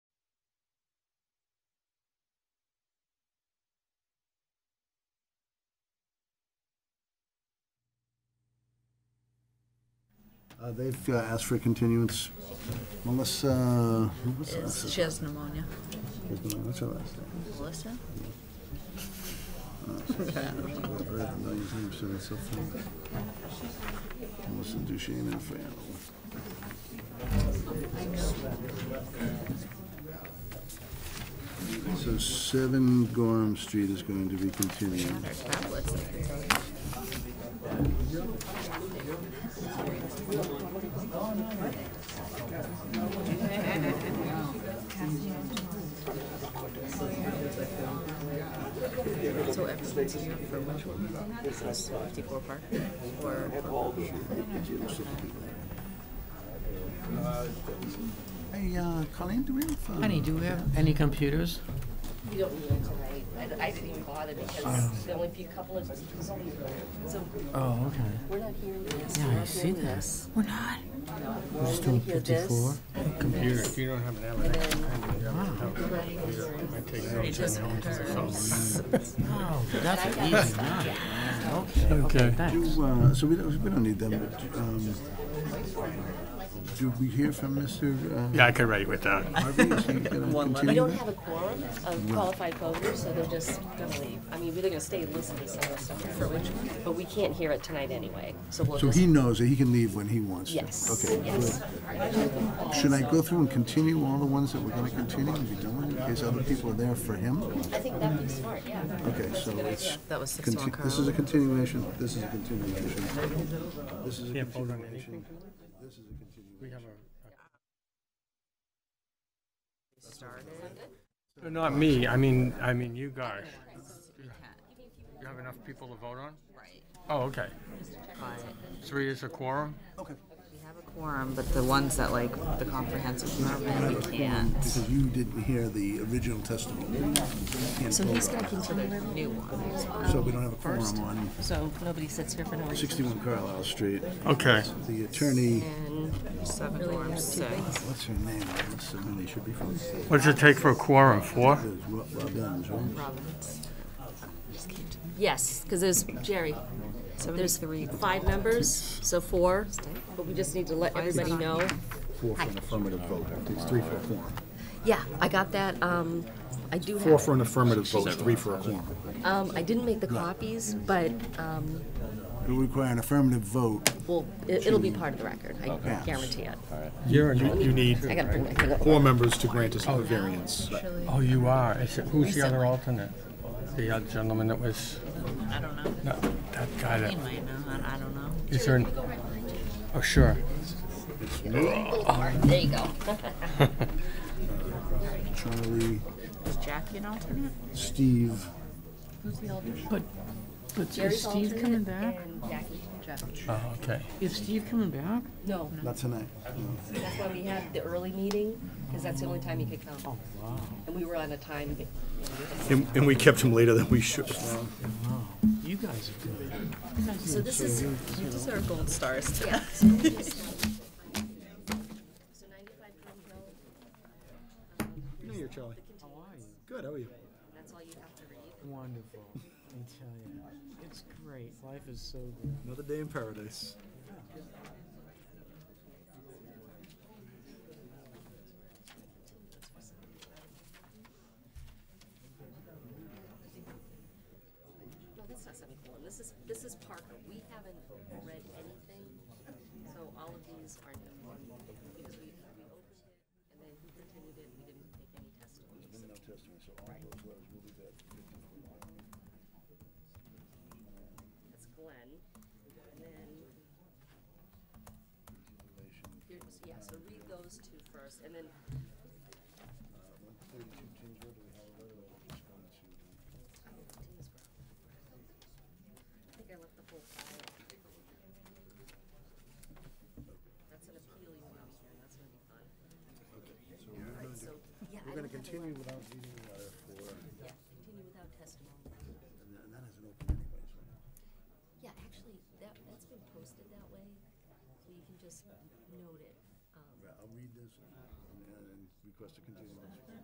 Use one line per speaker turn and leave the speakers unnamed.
Uh, They've uh, asked for a continuance. Melissa, what's her last
She has pneumonia.
name? What's her last name?
Melissa?
I've heard it a million times, so it's so funny. Melissa Duchesne and Fran. So 7 Gorham Street is going to be continued.
Her tablets. I can tell you. So everyone's here for which one? This is Fifty-four Park or
Hey, uh, Colleen, do we have? uh,
Honey, do we have any computers?
We don't need it tonight. I, I didn't even bother because the only few couple of, so
Oh, okay.
we're not hearing this.
Yeah,
we're
I
not
see
hearing
that.
this.
We're not.
We're just doing fifty-four.
Computer, if you don't have an
It doesn't hurt.
Oh, that's an easy one. Okay, okay,
Okay.
thanks.
Do, uh, so we don't, we don't need them, but, um, do we hear from Mr. uh,
Yeah, I could write with that.
Harvey? Is he gonna
We
continue
don't
that?
have a quorum of qualified voters, so they're just gonna leave. I mean, we're gonna stay and listen to some of the stuff. For which one? But we can't hear it tonight anyway, so we'll
So
just.
he knows that he can leave when he wants to?
Yes,
Okay.
yes.
good. Should I go through and continue all the ones that we're gonna continue and be done with, in case other people are there for him?
I think that'd be smart, yeah.
Okay, so it's,
That was sixty-one
conti-
Carl.
this is a continuation, this is a continuation, this is a continuation. This is a continuation.
Not me, I mean, I mean you guys. You have enough people to vote on?
Right.
Oh, okay. Three is a quorum?
Okay,
We have a quorum, but the ones that like the comprehensive permit, we can't.
because you didn't hear the original testimony. Can't
So he's
vote.
gonna continue.
New ones.
So we don't have a quorum on
So nobody sits here for no reason.
61 Carlisle Street.
Okay.
The attorney,
And seven quorum, six.
what's her name? This attorney should be from, is
What's it take for a quorum, four?
Ro- Robbins, right?
Robbins. Yes, because there's, Jerry, there's three, five members, so four, but we just need to let everybody know.
Four for an affirmative vote. It's three for a quorum.
Yeah, I got that, um, I do
Four
have,
for an affirmative vote, three for a quorum.
um, I didn't make the copies, but, um,
It'll require an affirmative vote.
well, it- it'll be part of the record, I
Okay.
guarantee it.
You're, you
I
need,
gotta bring my thing up.
Four members to grant us the variance.
oh, you are. Is it- Who's the other alternate? The other gentleman that was,
I don't know.
no, that guy that,
He might know. I, I don't know.
is there, an- oh, sure.
There you go.
Charlie,
Is Jackie an alternate?
Steve,
But is
Jerry's
Steve coming
alternate
back?
and Jackie.
Oh, okay.
Is Steve coming back?
No,
not tonight.
that's why we had the early meeting, because that's the only time he could come. And we were on a time,
And, and we kept him later than we should.
You guys are good.
so this is,
You deserve gold stars today.
So 95 Drum Hill,
Hey, you're Charlie. Good, how are you?
that's all you have to read.
Wonderful, I tell you. It's great. Life is so good.
Another day in paradise.
No, that's not semicolon. This is, this is Parker. We haven't read anything, so all of these are new. Because we, we opened it, and then he continued it, we didn't take any testimony. so- That's Glenn, and then. Here, so- yeah, so read those two first, and then Uh, Oh, I think I left the whole file. That's an appeal you want to hear, that's gonna be fun. All right, so, yeah, I
We're going to
don't have,
continue without reading the letter for,
yeah, continue without testimony.
and that- and that isn't open anyways.
Yeah, actually, that, that's been posted that way, so you can just note it. Um,
right? I'll read this and and request a continuance.